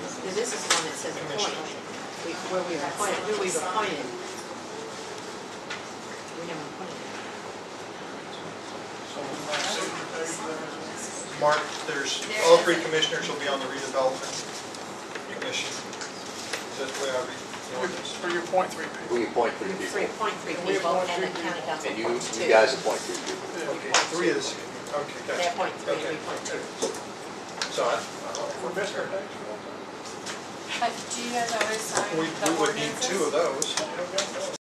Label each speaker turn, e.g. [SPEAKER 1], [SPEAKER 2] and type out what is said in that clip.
[SPEAKER 1] Because this is the one that says appoint, We- where we appointed, who we appointed. We never appointed.
[SPEAKER 2] Mark, there's, all three commissioners will be on the redevelopment commission. That's the way I read the ordinance.
[SPEAKER 3] For your point three people.
[SPEAKER 4] We appoint three
[SPEAKER 1] Three,
[SPEAKER 4] people,
[SPEAKER 1] appoint three
[SPEAKER 3] We
[SPEAKER 1] people,
[SPEAKER 3] appoint
[SPEAKER 1] and the
[SPEAKER 3] three
[SPEAKER 1] county
[SPEAKER 3] people.
[SPEAKER 1] council
[SPEAKER 4] and you,
[SPEAKER 1] appoints two.
[SPEAKER 4] you guys appoint three people.
[SPEAKER 2] Okay, three is, okay, gotcha.
[SPEAKER 1] They appoint three, we
[SPEAKER 2] Okay,
[SPEAKER 1] appoint two.
[SPEAKER 2] okay. So I,
[SPEAKER 3] We're missing our next one.
[SPEAKER 5] But do you guys always sign
[SPEAKER 2] we,
[SPEAKER 5] the
[SPEAKER 2] we would need
[SPEAKER 5] ordinances?
[SPEAKER 2] two of those.